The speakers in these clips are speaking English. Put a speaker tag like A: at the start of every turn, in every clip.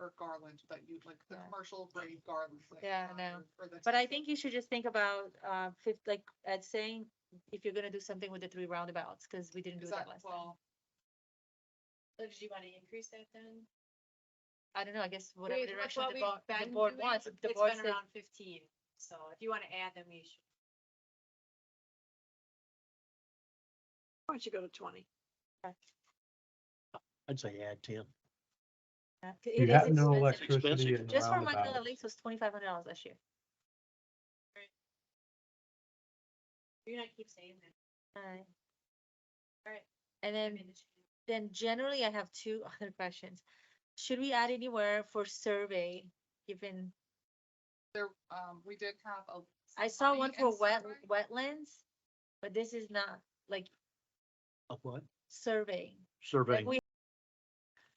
A: or garland, but you'd like the
B: Yeah.
A: commercial grade garland. like,
B: Yeah, I
A: uh,
B: know.
A: for the-
B: But I think you should just think about, uh, fifth, like, at saying, if you're gonna do something with the three roundabouts, cause we didn't do
A: Is
B: that
A: that,
B: last time.
A: well,
C: So do you want to increase that then?
B: I don't know, I guess whatever
C: With- with
B: direction
C: what
B: the
C: we've
B: board, the
C: been
B: board
C: doing,
B: wants, if the
C: It's
B: board
C: been
B: says-
C: around fifteen, so if you want to add them, you should.
D: Why don't you go to twenty?
E: I'd say add ten.
B: yeah, 'cause it
F: You
B: is
F: have no
B: expensive.
F: electricity
E: Expensive.
F: and
B: Just for Magnolia
F: roundabouts.
B: Lakes was twenty-five hundred dollars last year.
C: You're not keep saying that.
B: Alright.
C: Alright.
B: And
C: I
B: then,
C: mean, it's-
B: then generally I have two other questions. Should we add anywhere for survey, given,
A: there, um, we did have a.
B: I saw
A: survey
B: one
A: and
B: for wet,
A: survey.
B: wetlands, but this is not like
E: Of what?
B: surveying.
E: Surveying.
B: Like we,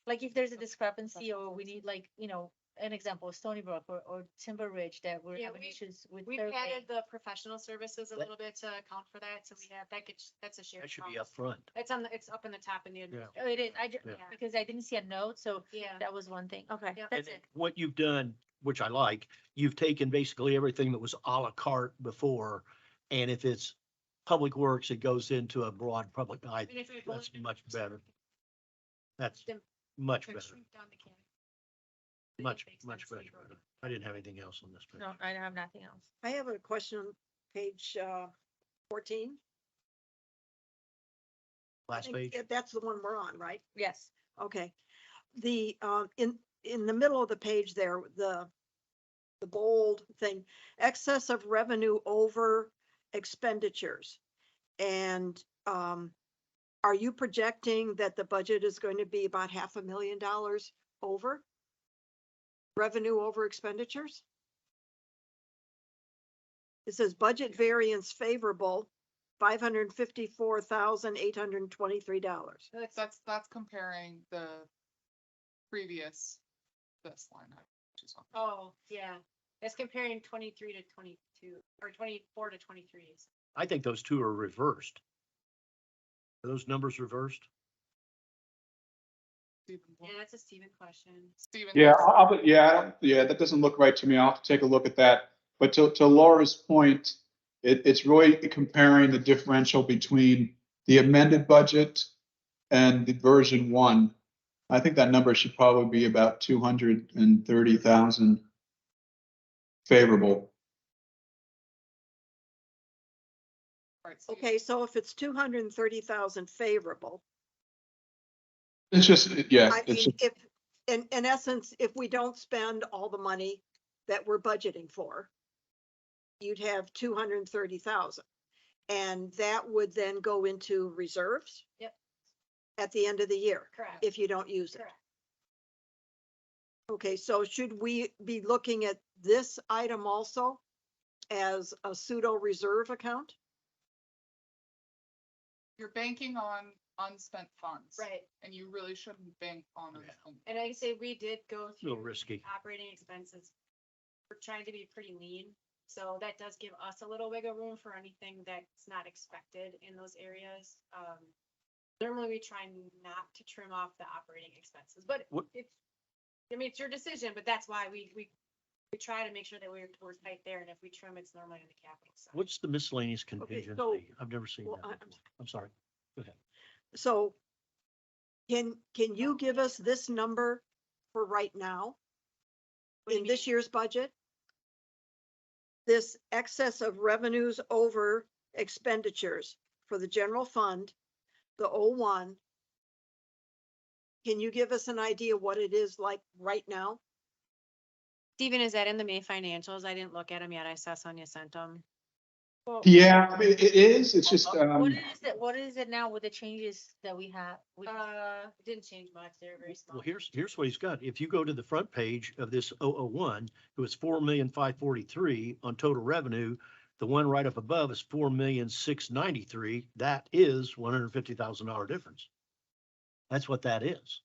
B: like if there's a discrepancy or we need like, you know, an example, Stony Brook or, or Timber Ridge that we're
C: Yeah,
B: having
C: we-
B: issues with
C: We've
B: surveying.
C: added the professional services a
E: That-
C: little bit to account for that, so we have, that could, that's a shared.
E: That should be
C: cost.
E: up front.
C: It's on, the it's up in the top in the. admin-
B: Oh, it is, I, ju-
E: Yeah.
C: Yeah.
B: because I didn't see a note, so
C: Yeah.
B: that was one thing. Okay,
C: Yeah.
B: that's
E: And
B: it.
E: What you've done, which I like, you've taken basically everything that was à la carte before. And if it's public works, it goes into a broad public, I,
C: And if we
E: that's
C: bulleted
E: much
C: it,
E: better. that's
C: then
E: much
C: could
E: better,
C: shrink down the can- the
E: much,
C: expense
E: much
C: we
E: better.
C: wrote on.
E: I didn't have anything else on this. page.
B: No, I have nothing else.
D: I have a question on page uh fourteen. I
E: Last
D: think
E: page,
D: that- That's the one we're on, right?
B: Yes,
D: Okay. The um in in the middle of the page there, the the bold thing, excess of revenue over expenditures. And um are you projecting that the budget is going to be about half a million dollars over? Revenue over expenditures? It says budget variance favorable, five hundred and fifty-four thousand, eight hundred and twenty-three dollars.
C: That's-
A: That's, that's comparing the previous, this line. item, which is on-
C: Oh, yeah, that's comparing twenty-three to twenty-two, or twenty-four to twenty-three. so
E: I think those two are reversed. Are those numbers reversed?
A: Stephen Bloom-
C: Yeah, that's a Steven question.
A: Stephen
F: Yeah,
A: Bloom.
F: I, I would- yeah, I don't- yeah, that doesn't look right to me. I'll have to take a look at that. But to, to Laura's point, it, it's really comparing the differential between the amended budget and the version one. I think that number should probably be about two hundred and thirty thousand favorable.
A: Right, so you-
D: Okay, so if it's two hundred and thirty thousand favorable,
F: It's just, yeah,
D: I
F: it's,
D: mean, if, in, in essence, if we don't spend all the money that we're budgeting for, you'd have two hundred and thirty thousand. And that would then go into reserves?
C: Yep.
D: At the end of the year,
C: Correct.
D: if you don't use it.
C: Correct.
D: Okay, so should we be looking at this item also as a pseudo reserve account?
A: You're banking on unspent funds.
C: Right,
A: And you really shouldn't bank on
E: Yeah.
A: unspent
C: and I say we did go
E: A little
C: through
E: risky.
C: operating expenses. We're trying to be pretty lean, so that does give us a little wiggle room for anything that's not expected in those areas. Um, normally we try not to trim off the operating expenses, but
E: What-
C: it's, I mean, it's your decision, but that's why we, we, we try to make sure that we're, we're tight there, and if we trim, it's normally on the capital side.
E: What's the miscellaneous contingency? I've never seen
D: well,
E: that.
D: I- I'm
E: before. I'm sorry.
D: So can, can you give us this number for right now?
C: What do you
D: in this
C: mean?
D: year's budget? This excess of revenues over expenditures for the general fund, the O one. Can you give us an idea what it is like right now?
C: Steven, is that in the May financials? I didn't look at them yet. I saw Sonia sent them.
F: yeah, I mean, it is, it's just,
B: What
F: um,
B: is it, what is it now with the changes that we have? We-
C: Uh, it didn't change much. They're very small.
E: Well, here's, here's what he's got. If you go to the front page of this 001, it was four million five forty-three on total revenue. The one right up above is four million six ninety-three. That is one hundred fifty thousand dollar difference. That's what that is.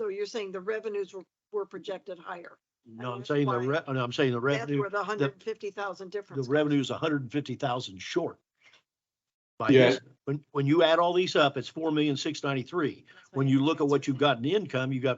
D: So you're saying the revenues were, were projected higher.
E: No, I'm
D: that's
E: saying the
D: why-
E: re, no, I'm saying the
D: That's
E: revenue,
D: where the hundred and fifty thousand
E: the
D: difference. comes.
E: revenue is hundred and fifty thousand short. By
F: Yeah.
E: this. When, when you add all these up, it's four million six ninety-three.
C: That's what
E: When
C: I
E: you
C: think
E: look at
C: that's
E: what you've
C: it is.
E: got in income, you've got